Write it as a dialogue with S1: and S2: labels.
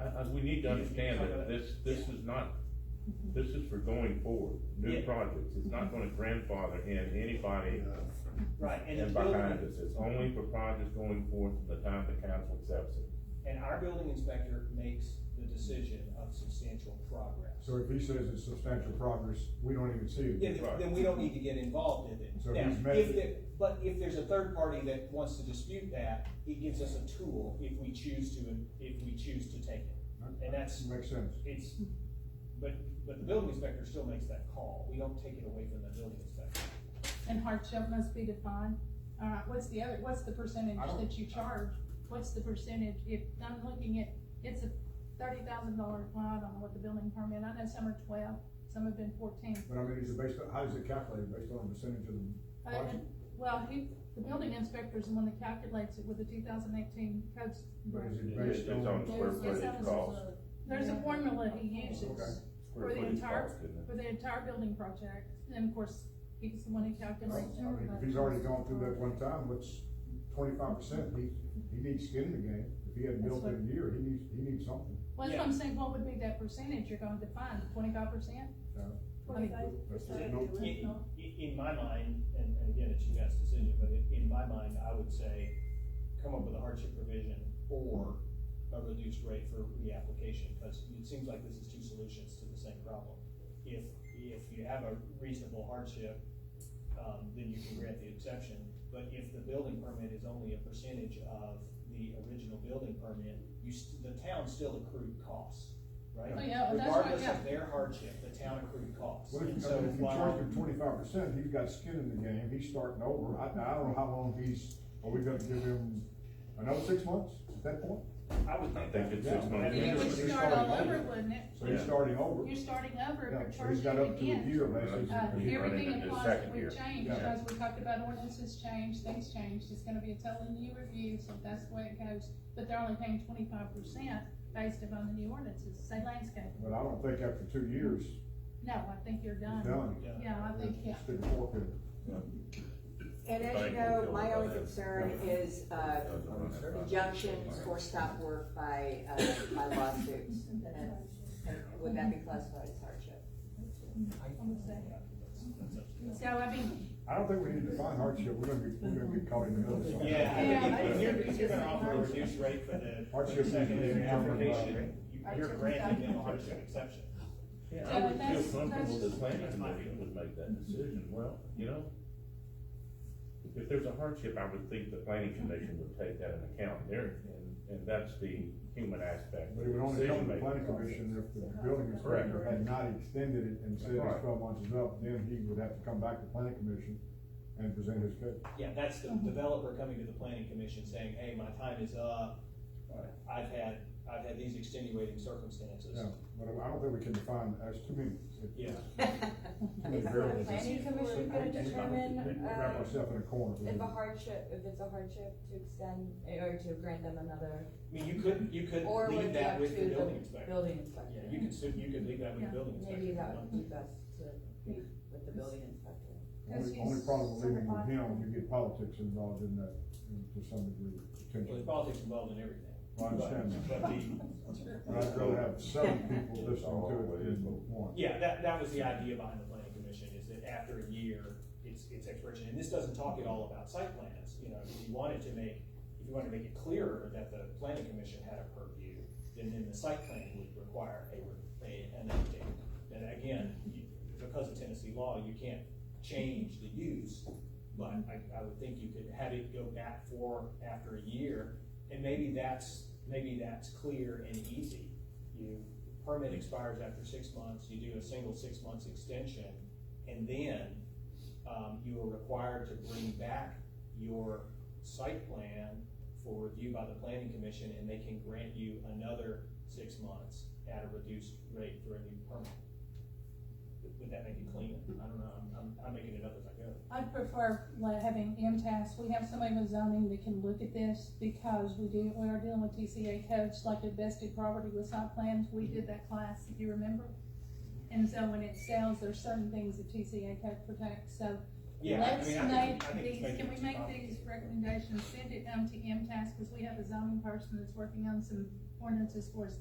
S1: uh, we need to understand that this, this is not, this is for going forward, new
S2: Yeah.
S1: projects, it's not gonna grandfather in anybody
S2: Right, and the
S1: behind
S2: building,
S1: us, it's only for projects going forward from the time the council accepts it.
S2: and our building inspector makes the decision of substantial progress.
S3: So if he says it's substantial progress, we don't even see it.
S2: Yeah, then- then we don't need to get involved in it.
S3: So
S2: Now,
S3: he's met-
S2: if there- But if there's a third party that wants to dispute that, he gives us a tool if we choose to, if we choose to take it. And that's,
S3: Makes sense.
S2: it's, but, but the building inspector still makes that call, we don't take it away from the building inspector.
S4: And hardship must be defined. All right, what's the other, what's the percentage
S3: I don't-
S4: that you charge? What's the percentage, if, I'm looking at, it's a thirty thousand dollar, well, I don't know what the building permit, I know some are twelve, some have been fourteen.
S3: But I mean, is it based on, how is it calculated? Based on percentage of the,
S4: Uh,
S3: Why?
S4: and- Well, he, the building inspector is the one that calculates it with the two thousand eighteen code.
S3: but is it
S1: It's
S3: based
S1: it's on
S3: on,
S1: square
S5: There's- there's
S1: footage
S5: others
S1: cost.
S5: as well.
S4: There's a formula he
S3: Okay.
S4: uses
S1: square
S4: For the
S1: footage
S4: entire-
S1: cost, isn't it?
S4: for the entire building project, and of course, he's the one who
S3: I
S4: calculates.
S3: don't- uh, I mean, if he's already gone through that one time, what's twenty-five percent? He, he needs skin in the game. If he hadn't built in a year, he needs, he needs something.
S4: Well, that's what I'm saying, what would be that percentage you're gonna define, twenty-five percent?
S3: No. That's
S5: Is that
S3: no-
S5: the
S2: In,
S5: original?
S2: in- in my mind, and, and again, it's you guys' decision, but in, in my mind, I would say, come up with a hardship provision or a reduced rate for reapplication, because it seems like this is two solutions to the same problem. If, if you have a reasonable hardship, um, then you can grant the exception, but if the building permit is only a percentage of the original building permit, you, st- the town still accrued costs, right?
S4: Oh, yeah, that's right,
S2: Regardless
S4: yeah.
S2: of their hardship, the town accrued costs.
S3: Well, if,
S2: And
S3: you-
S2: so
S3: I mean, if you
S2: while-
S3: charge him twenty-five percent, he's got skin in the game, he's starting over, I, I don't know how long he's, are we gonna give him another six months at that point?
S2: I would
S1: I think it's
S3: Yeah.
S1: six months.
S3: Yeah,
S4: It would
S3: He's
S4: start all
S3: starting
S4: over,
S3: over.
S4: wouldn't it?
S3: So he's
S1: Yeah.
S3: starting over,
S4: You're starting over,
S3: yeah,
S4: but
S3: so he's
S4: charging
S3: got
S4: it
S3: up to a
S4: again.
S3: year basically.
S4: Uh,
S1: He's running
S4: everything
S1: into
S4: applies
S1: second
S4: that we've
S1: gear.
S4: changed,
S3: Yeah.
S4: because we talked about ordinances changed, things changed, it's gonna be a totally new review, so that's the way it goes. But they're only paying twenty-five percent based upon the new ordinances, say landscape.
S3: But I don't think after two years,
S4: No, I think you're
S3: he's
S4: done.
S3: done.
S2: Yeah.
S4: Yeah, I think, yeah.
S3: It's been forfeited.
S5: And as you know, my only concern is, uh, injunctions for stop work by, uh, by lawsuits. And and Would that be classified as hardship?
S4: So, I mean,
S3: I don't think we need to define hardship, we're gonna be, we're gonna get caught in the middle of something.
S2: Yeah, I think
S4: Yeah,
S2: if- if
S4: I
S2: you're,
S4: think
S2: if you're gonna
S4: it's
S2: offer a
S4: hardship.
S2: reduced rate for the, for the
S3: Hardship is
S2: secondary
S3: being covered by-
S2: application, you- you're
S4: Hardship
S2: granting them a
S4: without-
S2: hardship exception.
S1: Yeah,
S4: So
S1: I would feel
S4: that's-
S1: comfortable
S4: that's-
S1: that planning committee would make that decision, well, you know? If there's a hardship, I would think the planning commission would take that into account there, and, and that's the human aspect.
S3: But it would only come to the
S1: Decision-making
S3: planning
S1: process.
S3: commission if the building inspector had not extended it and said it's
S1: Right.
S3: twelve months is up, then he would have to come back to planning commission and present his case.
S2: Yeah, that's
S6: Mm-hmm.
S2: the developer coming to the planning commission saying, hey, my time is up, I've had, I've had these extenuating circumstances.
S3: Yeah, but I don't think we can define, that's too many. It's-
S2: Yeah.
S3: Is
S6: Is
S3: the
S6: the
S3: Variables.
S6: planning commission gonna determine,
S4: uh,
S6: uh,
S3: Wrap myself in a corner.
S6: if a hardship, if it's a hardship to extend, or to grant them another,
S2: I mean, you could, you could
S6: or would
S2: leave
S6: it be
S2: that
S6: up to
S2: with the building
S6: the
S2: inspector.
S6: building
S2: Yeah,
S6: inspector?
S2: you could, su- you could leave that with the
S4: Yeah.
S2: building inspector.
S6: Maybe that would be best to, be with the building inspector.
S3: Only, only problem with leaving with him, you get politics involved in that, in- to some degree,
S2: Well, there's
S3: potentially.
S2: politics involved in everything.
S3: I understand that.
S2: But- But the,
S3: But I'd rather have seven people listening to it than one.
S2: Yeah, that, that was the idea behind the planning commission, is that after a year, it's, it's expiration, and this doesn't talk at all about site plans, you know, if you wanted to make, if you wanted to make it clearer that the planning commission had a purview, then then the site plan would require a, a, an update. And again, you, because of Tennessee law, you can't change the use, but I, I would think you could have it go back for, after a year, and maybe that's, maybe that's clear and easy. You, permit expires after six months, you do a single six months extension, and then, um, you are required to bring back your site plan for review by the planning commission, and they can grant you another six months at a reduced rate for a new permit. Would that make it cleaner? I don't know, I'm, I'm, I'm making it up as I go.
S4: I'd prefer like having MTS, we have somebody with zoning that can look at this, because we do, we are dealing with TCA codes, like the vested property with site plans, we did that class, if you remember. And so when it sells, there's certain things that TCA code protects, so
S2: Yeah, I
S4: let's
S2: mean, I think-
S4: make
S2: I think it's
S4: these,
S2: making
S4: can we
S2: it
S4: make
S2: too
S4: these
S2: complicated.
S4: recommendations, send it down to MTS, because we have a zoning person that's working on some ordinances for us